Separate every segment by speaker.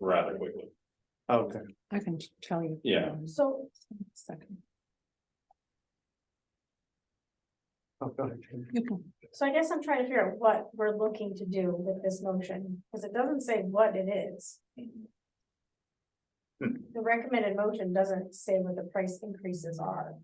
Speaker 1: rather quickly.
Speaker 2: Okay,
Speaker 3: I can tell you.
Speaker 1: Yeah.
Speaker 3: um,
Speaker 4: So
Speaker 3: Second.
Speaker 2: oh, go ahead.
Speaker 3: You can-
Speaker 4: So I guess I'm trying to figure out what we're looking to do with this motion, because it doesn't say what it is.
Speaker 5: Hmm.
Speaker 4: The recommended motion doesn't say what the price increases are.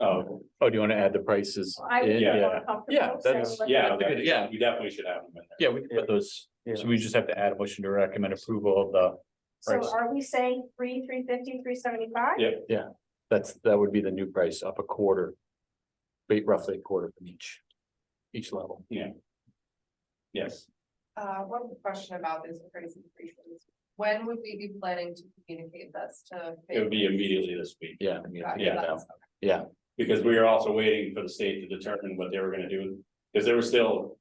Speaker 1: Oh,
Speaker 5: Oh, do you want to add the prices?
Speaker 4: I would
Speaker 5: in?
Speaker 4: feel
Speaker 1: Yeah.
Speaker 4: more comfortable
Speaker 5: Yeah,
Speaker 4: saying
Speaker 5: that's-
Speaker 4: what the-
Speaker 1: yeah,
Speaker 5: That's a good-
Speaker 1: that-
Speaker 5: yeah.
Speaker 1: we definitely should have them in there.
Speaker 5: Yeah, we can put those,
Speaker 2: Yeah.
Speaker 5: so we just have to add a motion to recommend approval of the,
Speaker 4: So
Speaker 5: price.
Speaker 4: are we saying three, three fifty, three seventy-five?
Speaker 1: Yeah.
Speaker 5: that's, that would be the new price up a quarter. Wait, roughly a quarter from each, each level.
Speaker 1: Yes,
Speaker 6: Uh, one question about this price increases. When would we be planning to communicate this to?
Speaker 1: it would be immediately this week,
Speaker 5: Yeah. I mean, I think
Speaker 1: Yeah,
Speaker 5: that-
Speaker 6: that's-
Speaker 1: because we were also waiting for the state to determine what they were gonna do, because there were still.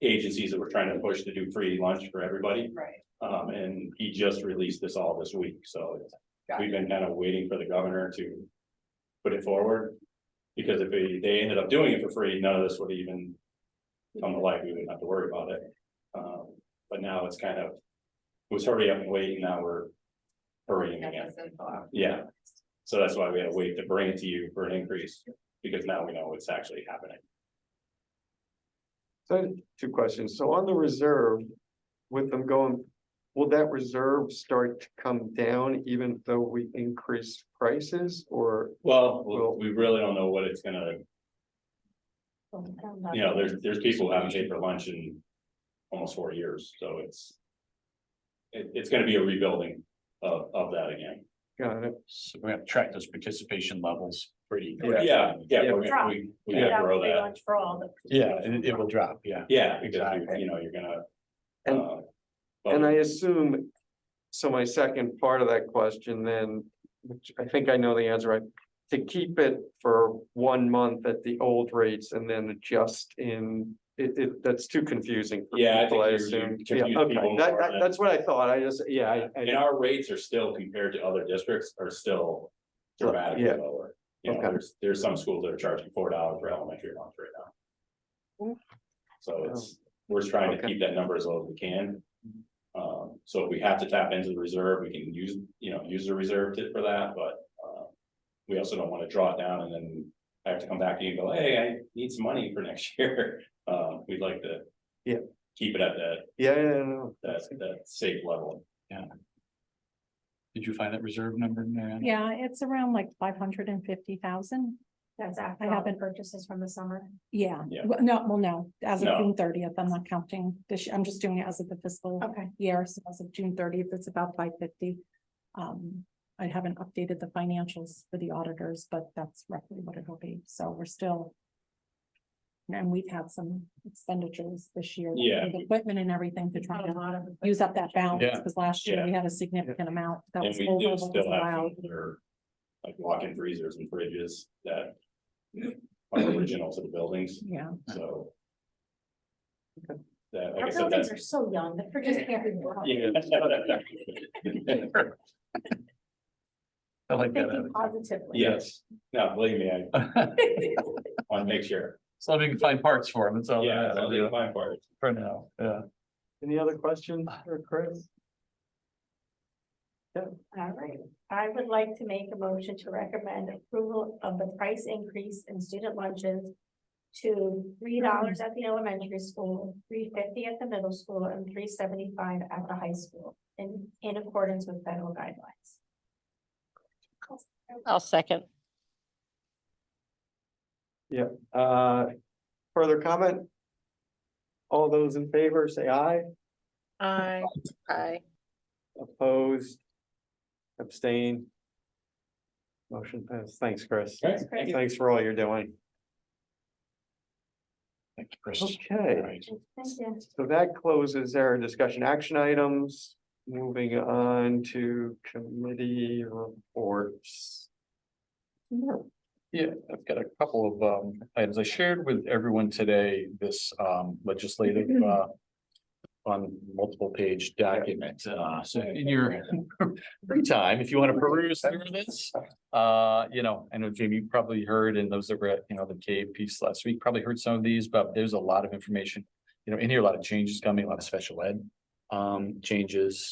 Speaker 1: Agencies that were trying to push to do free lunch for everybody,
Speaker 6: Right,
Speaker 1: um, and he just released this all this week, so. it's-
Speaker 6: Got
Speaker 1: We've been kind of waiting for the governor to put it forward. Because if they, they ended up doing it for free, none of this would even come to light, we wouldn't have to worry about it. Um, but now it's kind of, it was hurry up and wait, and now we're hurrying
Speaker 6: Get
Speaker 1: again.
Speaker 6: this info out.
Speaker 1: Yeah, so that's why we had to wait to bring it to you for an increase, because now we know what's actually happening.
Speaker 2: So two questions. So on the reserve, with them going, will that reserve start to come down even though we increase prices or?
Speaker 1: Well, we we really don't know what it's gonna,
Speaker 3: Oh,
Speaker 4: I'm not-
Speaker 1: you know, there's, there's people who haven't paid for lunch in almost four years, so it's. It, it's gonna be a rebuilding of, of that again.
Speaker 2: Got it.
Speaker 5: So we have to track those participation levels pretty.
Speaker 2: Yeah.
Speaker 1: Yeah, yeah, we,
Speaker 4: Drop.
Speaker 1: we, we
Speaker 4: Without
Speaker 1: gotta grow
Speaker 4: free
Speaker 1: that.
Speaker 4: lunch For all the.
Speaker 5: Yeah, it, it will drop, yeah.
Speaker 1: Yeah, because you,
Speaker 5: Exactly.
Speaker 1: you know, you're gonna.
Speaker 2: And-
Speaker 1: uh, but-
Speaker 2: And I assume, so my second part of that question then, which I think I know the answer, right? To keep it for one month at the old rates and then adjust in, it, it, that's too confusing. for
Speaker 1: Yeah, I
Speaker 2: people,
Speaker 1: think you- you
Speaker 2: assume. Yeah,
Speaker 1: confuse
Speaker 2: okay.
Speaker 1: people
Speaker 2: That-
Speaker 1: more
Speaker 2: that-
Speaker 1: than-
Speaker 2: that's what I thought. I just, yeah, I, I.
Speaker 1: And our rates are still compared to other districts are still dramatically
Speaker 2: Yeah.
Speaker 1: lower. You know,
Speaker 2: Okay.
Speaker 1: there's, there's some schools that are charging four dollars for elementary lunch right now. So it's, we're trying to
Speaker 2: Oh. Okay. Mm-hmm.
Speaker 1: keep that number as low as we can. Um, so if we have to tap into the reserve, we can use, you know, use the reserve to- for that, but, uh, we also don't want to draw it down and then I have to come back to you and go, hey, I need some money for next year. Uh, we'd like to
Speaker 2: Yeah.
Speaker 1: keep it at that,
Speaker 2: Yeah, yeah, yeah, no.
Speaker 1: that, that safe level.
Speaker 5: Did you find that reserve number, Marianne?
Speaker 3: Yeah, it's around like five hundred and fifty thousand.
Speaker 4: That's
Speaker 3: I
Speaker 4: after all the
Speaker 3: haven't-
Speaker 4: purchases from the summer.
Speaker 3: Yeah.
Speaker 1: Yeah.
Speaker 3: Well, No, well, no, as of
Speaker 1: No.
Speaker 3: June thirtieth, I'm not counting this, year. I'm just doing it as of the fiscal
Speaker 4: Okay.
Speaker 3: year, so as of June thirtieth, it's about five fifty. Um, I haven't updated the financials for the auditors, but that's roughly what it'll be, so we're still. And we've had some expenditures this year. with
Speaker 1: Yeah.
Speaker 3: Equipment and everything to try
Speaker 4: Not a
Speaker 3: to
Speaker 4: lot of.
Speaker 3: use up that balance,
Speaker 5: Yeah.
Speaker 3: because last year
Speaker 1: Yeah.
Speaker 3: we had a significant amount that
Speaker 1: And
Speaker 3: was
Speaker 1: we
Speaker 3: over
Speaker 1: do
Speaker 3: what was
Speaker 1: still have
Speaker 3: allowed.
Speaker 1: other, like walk-in freezers and fridges that are original to the buildings,
Speaker 3: Yeah,
Speaker 1: so. That, like I
Speaker 4: Our
Speaker 1: said, that's.
Speaker 4: buildings are so young, the purchase can't be. bought.
Speaker 1: Yeah.
Speaker 5: I like
Speaker 4: Thinking
Speaker 5: that.
Speaker 4: positively.
Speaker 1: Yes, no, believe me, I want to make sure.
Speaker 5: So we can find parts for them, it's all.
Speaker 1: Yeah,
Speaker 5: that
Speaker 1: I'll do
Speaker 5: matters,
Speaker 1: the fine part.
Speaker 5: For now, yeah.
Speaker 2: Any other questions for Chris?
Speaker 4: All right, I would like to make a motion to recommend approval of the price increase in student lunches. To three dollars at the elementary school, three fifty at the middle school, and three seventy-five at the high school, in, in accordance with federal guidelines.
Speaker 7: I'll second.
Speaker 2: Uh, further comment? All those in favor, say aye.
Speaker 6: I
Speaker 7: Aye.
Speaker 2: Opposed? Abstain? Motion passed. Thanks, Chris.
Speaker 1: Okay.
Speaker 4: Chris.
Speaker 2: Thanks for all you're doing.
Speaker 5: Thank you, Chris. All
Speaker 2: Okay,
Speaker 5: right.
Speaker 4: Thank you.
Speaker 2: so that closes our discussion action items. Moving on to committee reports.
Speaker 5: Yeah, I've got a couple of um items I shared with everyone today, this um legislative uh. On multiple page document, uh so in your free time, if you want to peruse through this. Uh, you know, I know Jamie you probably heard and those that were at, you know, the cave piece last week probably heard some of these, but there's a lot of information. You know, in here, a lot of changes coming, a lot of special ed um changes,